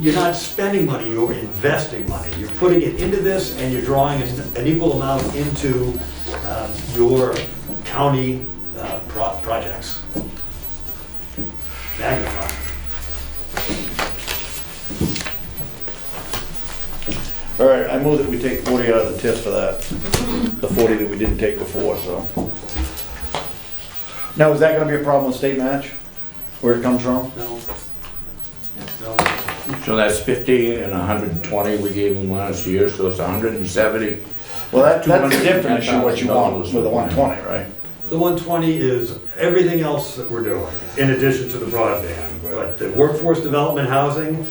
you're not spending money, you're investing money. You're putting it into this and you're drawing an an equal amount into um, your county uh, pro- projects. Magnify. All right, I move that we take 40 out of the TIF for that, the 40 that we didn't take before, so. Now, is that gonna be a problem with state match, where it comes from? No? No? So that's 50 and 120 we gave them last year, so it's 170. Well, that, that's a different $210,000 issue, what you want with the 120, right? The 120 is everything else that we're doing, in addition to the broadband. But the workforce development housing,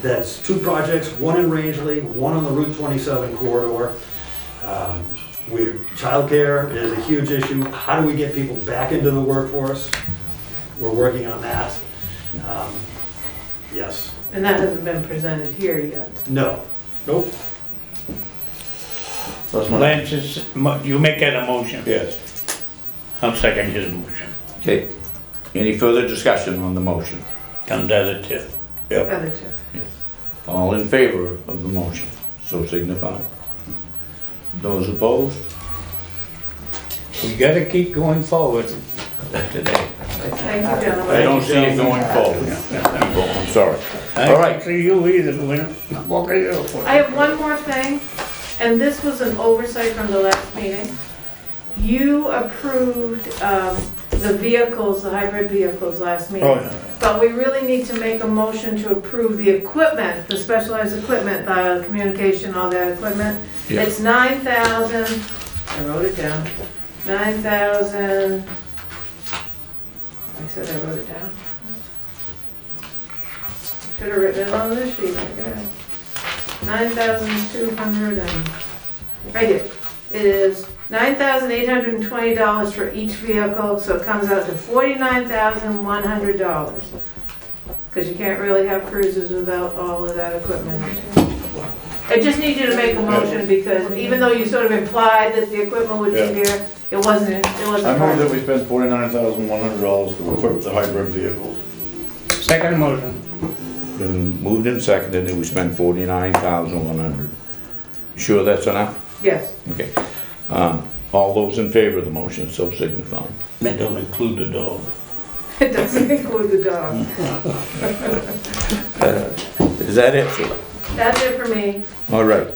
that's two projects, one in Rangeley, one on the Route 27 corridor. Um, We, childcare is a huge issue. How do we get people back into the workforce? We're working on that. Um, Yes, And that hasn't been presented here yet. no. Nope. So that's my- Lance, is- mo- you make that a motion. Yes. I'll second his motion. Okay, any further discussion on the motion? Comes out of TIF. Other two. All in favor of the motion, so signify. Those opposed? We gotta keep going forward today. Thank you, I gentlemen. don't see it going forward. Oh, I'm sorry. I All right. don't see you either, Gwen. What are you for? I have one more thing, and this was an oversight from the last meeting. You approved um, the vehicles, the hybrid vehicles last Oh, meeting. yeah. But we really need to make a motion to approve the equipment, the specialized equipment, the communication, all that equipment. Yeah. It's nine thousand, I wrote it down, nine thousand, I said I wrote it down. Should have written it on this sheet, I guess. Nine thousand two hundred and, right here, it is nine thousand eight hundred and twenty dollars for each vehicle, so it comes out to forty-nine thousand one hundred dollars. Because you can't really have cruises without all of that equipment. I just need you to make a motion, because even though you sort of implied that the equipment would Yeah. be here, it wasn't, it wasn't. I move that we spend $49,100 to equip the hybrid vehicles. Second motion. Been Moved and seconded, and we spent 49,100. Sure that's enough? Yes. Okay. Um, All those in favor of the motion, so signify. That don't include the dog. It doesn't include the dog. Is that it, Sue? That's it for me. All right.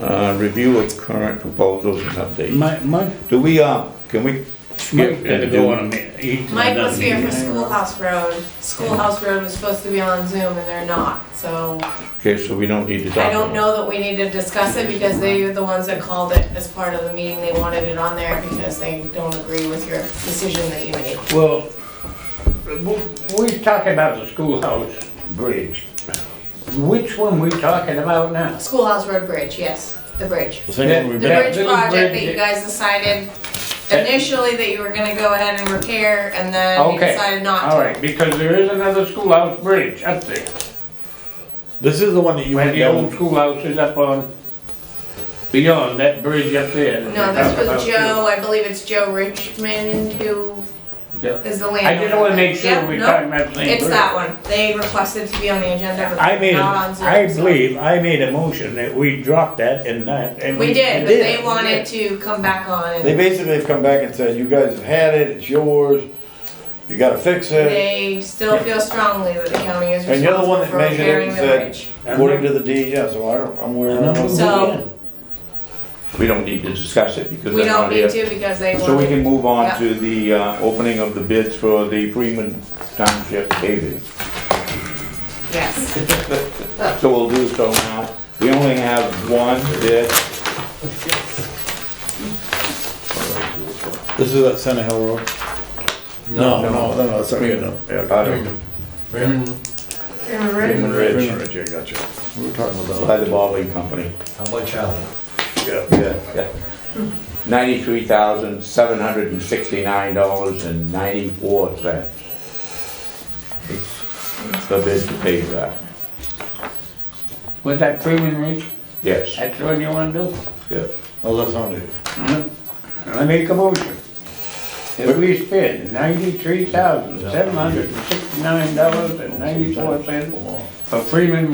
Uh, Review of current proposals and updates. Mike, Mike, Do we, uh, can we skip Mike had to and go on a do? minute. He- Mike was here for Yeah. Schoolhouse Road. Schoolhouse Road was supposed to be on Zoom and they're not, so Okay, so we don't need to talk about I it. don't know that we need to discuss it because they are the ones that called it as part of the meeting. They wanted it on there because they don't agree with your decision that you made. Well, w- we talking about the schoolhouse bridge. Which one we talking about now? Schoolhouse Road Bridge, yes, the bridge. The same one we've The been, Yeah, bridge little project that bridge. you guys decided initially that you were gonna go ahead and repair and then you Okay, decided not All to. right, because there is another schoolhouse bridge up there. this is the one that you When went the old down. schoolhouse is up on, beyond that bridge up there. that No, they this talk about was too. Joe, I believe it's Joe Richmond who Yeah. is the landowner. I just wanna make Yep, sure we're no, talking about the same It's bridge. that one. They requested to be on the agenda, but I made, not on Zoom. I so- believe, I made a motion that we dropped that and that, and we. We did, but did. they wanted to come back on They and basically have come back and said, you guys have had it, it's yours, you gotta fix it. they still feel strongly that the county is And you're the one responsible for that measured it repairing and the said- bridge. According to the D, yeah, so I don't, I'm aware of it. So We don't need to discuss it because we they're don't not need here. to because they So we wanted, can move on Yeah. to the uh, opening of the bids for the Freeman Township paving. yes. So we'll do so now. We only have one bid. This is at Center Hill Road? No, no, no, no, that's okay, no. Out of- Am I ready? Freeman Freeman Ridge Ridge, yeah, gotcha. We were talking about by the Baldwin Company. How much are they? Yeah. Ninety-three thousand, seven hundred and sixty-nine dollars and ninety-four cents. It's the bid to pay that. Was that Freeman Ridge? Yes, That's the one you wanna do? yes. Oh, that's on it. Mm-hmm. I make a motion. That we spend ninety-three thousand, seven hundred and sixty-nine dollars and ninety-four cents for Freeman